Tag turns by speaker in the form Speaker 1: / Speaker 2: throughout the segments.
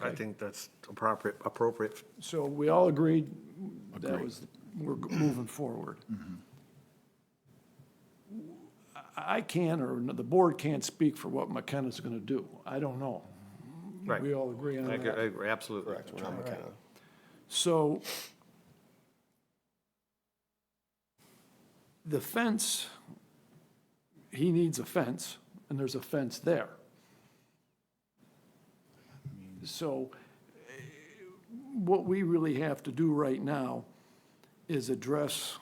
Speaker 1: I think that's appropriate, appropriate.
Speaker 2: So we all agreed that was, we're moving forward. I I can't, or the board can't speak for what McKenna's going to do. I don't know.
Speaker 1: Right.
Speaker 2: Mm-hmm. We all agree on
Speaker 1: I agree- I
Speaker 2: that.
Speaker 1: agree, absolutely.
Speaker 3: Correct, we're not McKenna.
Speaker 2: So the fence, he needs a fence, and there's a fence there. So eh, what we really have to do right now is address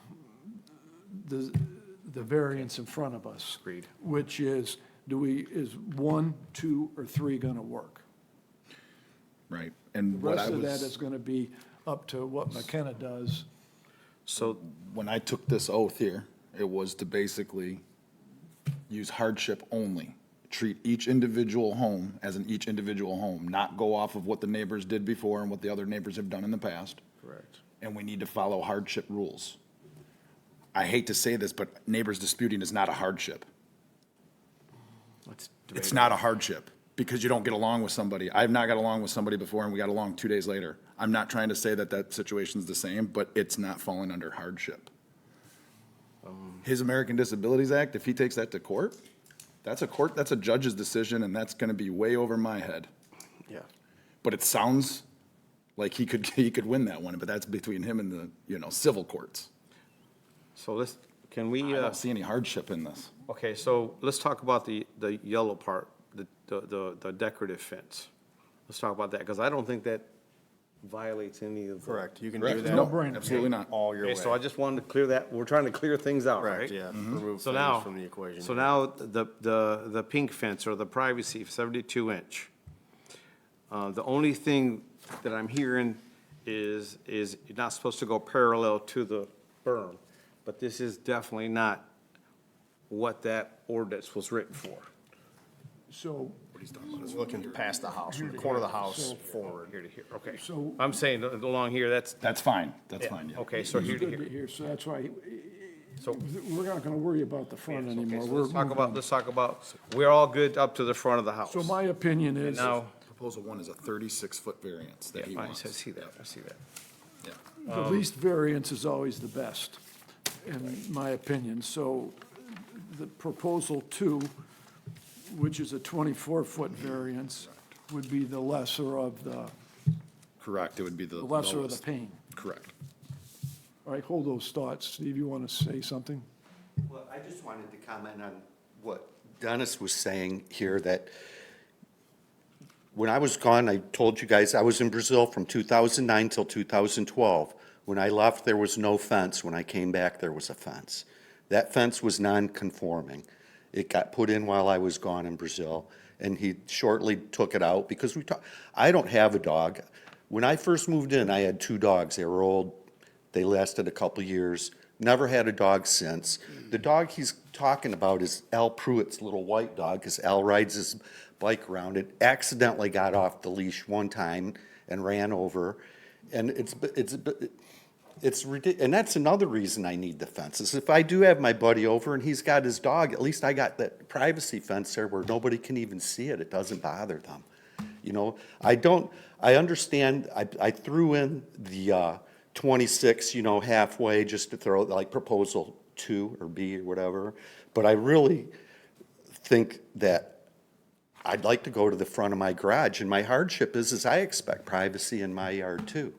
Speaker 2: the, the variance in front of us.
Speaker 1: Agreed.
Speaker 2: Which is, do we, is one, two, or three going to work?
Speaker 4: Right, and
Speaker 2: The
Speaker 4: what I
Speaker 2: rest of that is
Speaker 4: was,
Speaker 2: going to be up to what McKenna does.
Speaker 1: So,
Speaker 4: when I took this oath here, it was to basically use hardship only. Treat each individual home as an each individual home, not go off of what the neighbors did before and what the other neighbors have done in the past.
Speaker 1: correct.
Speaker 4: And we need to follow hardship rules. I hate to say this, but neighbors disputing is not a hardship.
Speaker 1: Let's debate.
Speaker 4: It's not a hardship because you don't get along with somebody. I've not got along with somebody before and we got along two days later. I'm not trying to say that that situation's the same, but it's not falling under hardship.
Speaker 1: Um,
Speaker 4: His American Disabilities Act, if he takes that to court, that's a court, that's a judge's decision and that's gonna be way over my head.
Speaker 1: Yeah.
Speaker 4: But it sounds like he could, he could win that one, but that's between him and the, you know, civil courts.
Speaker 1: So let's, can
Speaker 4: I
Speaker 1: we, uh,
Speaker 4: don't see any hardship in this.
Speaker 1: okay, so let's talk about the, the yellow part, the, the- the, the decorative fence. Let's talk about that, because I don't think that violates any of. the-
Speaker 3: Correct, you can do
Speaker 4: Correct?
Speaker 3: that.
Speaker 4: No, absolutely not.
Speaker 3: All your way.
Speaker 1: Okay, so I just wanted to clear that, we're trying to clear things out, right? Mm-hmm.
Speaker 3: Correct, yeah, remove
Speaker 1: So
Speaker 3: things
Speaker 1: now,
Speaker 3: from the equation.
Speaker 1: so now the, the, the pink fence or the privacy seventy-two inch. Uh, the only thing that I'm hearing is, is you're not supposed to go parallel to the berm, but this is definitely not what that ordinance was written for.
Speaker 2: So
Speaker 3: It's Looking past the house, from the corner of the house forward.
Speaker 1: Here to here, okay.
Speaker 2: So-
Speaker 1: I'm saying along here, that's,
Speaker 4: That's fine, that's fine, yeah.
Speaker 1: okay, so here to
Speaker 2: good to
Speaker 1: here.
Speaker 2: hear, so that's why,
Speaker 1: So
Speaker 2: we're not going to worry about the front
Speaker 1: Okay,
Speaker 2: anymore.
Speaker 1: so
Speaker 2: We're
Speaker 1: let's talk
Speaker 2: moving
Speaker 1: about,
Speaker 2: on.
Speaker 1: let's talk about, we're all good up to the front of the house.
Speaker 2: So my opinion is, the
Speaker 1: Now,
Speaker 4: Proposal one is a thirty-six foot variance that
Speaker 1: yeah,
Speaker 4: he
Speaker 1: I
Speaker 4: wants.
Speaker 1: see that, I see that.
Speaker 4: Yeah.
Speaker 1: um,
Speaker 2: least variance is always the best, in my opinion. So the proposal two, which is a 24-foot variance, would be the lesser of the,
Speaker 4: Correct, it would be the
Speaker 2: the lesser of the
Speaker 4: lowest.
Speaker 2: pain.
Speaker 4: Correct.
Speaker 2: All right, hold those thoughts. Steve, you want to say something?
Speaker 5: Well, I just wanted to comment on what Dennis was saying here, that when I was gone, I told you guys, I was in Brazil from 2009 till 2012. When I left, there was no fence. When I came back, there was a fence. That fence was non-conforming. It got put in while I was gone in Brazil, and he shortly took it out because we talked, I don't have a dog. When I first moved in, I had two dogs. They were old, they lasted a couple years. Never had a dog since. The dog he's talking about is Al Pruitt's little white dog, because Al rides his bike around. It accidentally got off the leash one time and ran over. And it's, it's, it's ridiculous. And that's another reason I need the fences. If I do have my buddy over and he's got his dog, at least I got that privacy fence there where nobody can even see it. It doesn't bother them. You know, I don't, I understand, I, I threw in the, uh, twenty-six, you know, halfway, just to throw, like, proposal two or B or whatever. But I really think that I'd like to go to the front of my garage, and my hardship is, is I expect privacy in my yard too.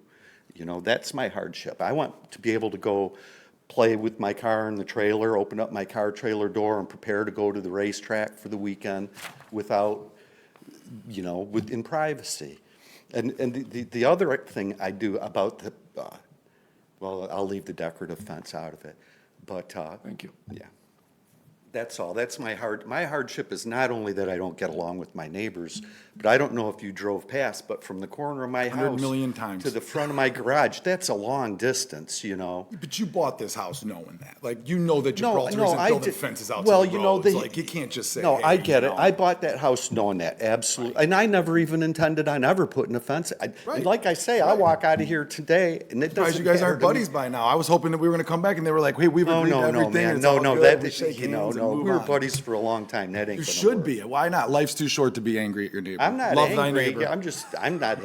Speaker 5: You know, that's my hardship. I want to be able to go play with my car in the trailer, open up my car trailer door and prepare to go to the racetrack for the weekend without, you know, within privacy. And, and the- the, the other thing I do about the, uh, well, I'll leave the decorative fence out of it, but, uh,
Speaker 2: Thank you.
Speaker 5: yeah. That's all. That's my hard, my hardship is not only that I don't get along with my neighbors, but I don't know if you drove past, but from the corner of my house.
Speaker 4: 100 million times.
Speaker 5: To the front of my garage, that's a long distance, you know?
Speaker 4: But you bought this house knowing that. Like, you know that
Speaker 5: No,
Speaker 4: Gibraltar
Speaker 5: no,
Speaker 4: isn't
Speaker 5: I
Speaker 4: building
Speaker 5: did-
Speaker 4: fences out to
Speaker 5: well,
Speaker 4: the
Speaker 5: you know,
Speaker 4: roads.
Speaker 5: the-
Speaker 4: Like, you can't just say,
Speaker 5: No, I
Speaker 4: "Hey,
Speaker 5: get
Speaker 4: you
Speaker 5: it.
Speaker 4: know."
Speaker 5: I bought that house knowing that, absolutely. And I never even intended on ever putting a fence. I-
Speaker 4: Right.
Speaker 5: Like I say, I walk out of here today and it
Speaker 4: Surprised
Speaker 5: doesn't
Speaker 4: you
Speaker 5: matter
Speaker 4: guys aren't
Speaker 5: to me.
Speaker 4: buddies by now. I was hoping that we were gonna come back and they were like, hey, we've
Speaker 5: No,
Speaker 4: agreed to
Speaker 5: no, no,
Speaker 4: everything.
Speaker 5: man.
Speaker 4: it's
Speaker 5: No,
Speaker 4: all
Speaker 5: no,
Speaker 4: good.
Speaker 5: that,
Speaker 4: We shake
Speaker 5: you know,
Speaker 4: hands and
Speaker 5: no,
Speaker 4: move
Speaker 5: we were
Speaker 4: on."
Speaker 5: buddies for a long time. That ain't
Speaker 4: You
Speaker 5: gonna
Speaker 4: should
Speaker 5: work.
Speaker 4: be. Why not? Life's too short to be angry at your neighbor.
Speaker 5: I'm not
Speaker 4: Love thy
Speaker 5: angry.
Speaker 4: neighbor.
Speaker 5: I'm just, I'm not